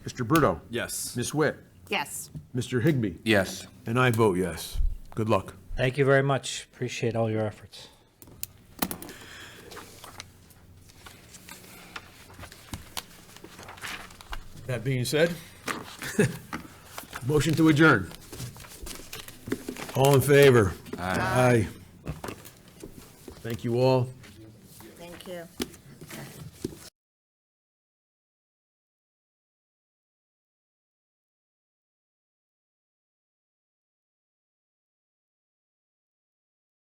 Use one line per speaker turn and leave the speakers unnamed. Mr. Bruto?
Yes.
Ms. Witt?
Yes.
Mr. Higbee?
Yes.
And I vote yes. Good luck.
Thank you very much. Appreciate all your efforts.
That being said, motion to adjourn. All in favor? Aye. Thank you all.
Thank you.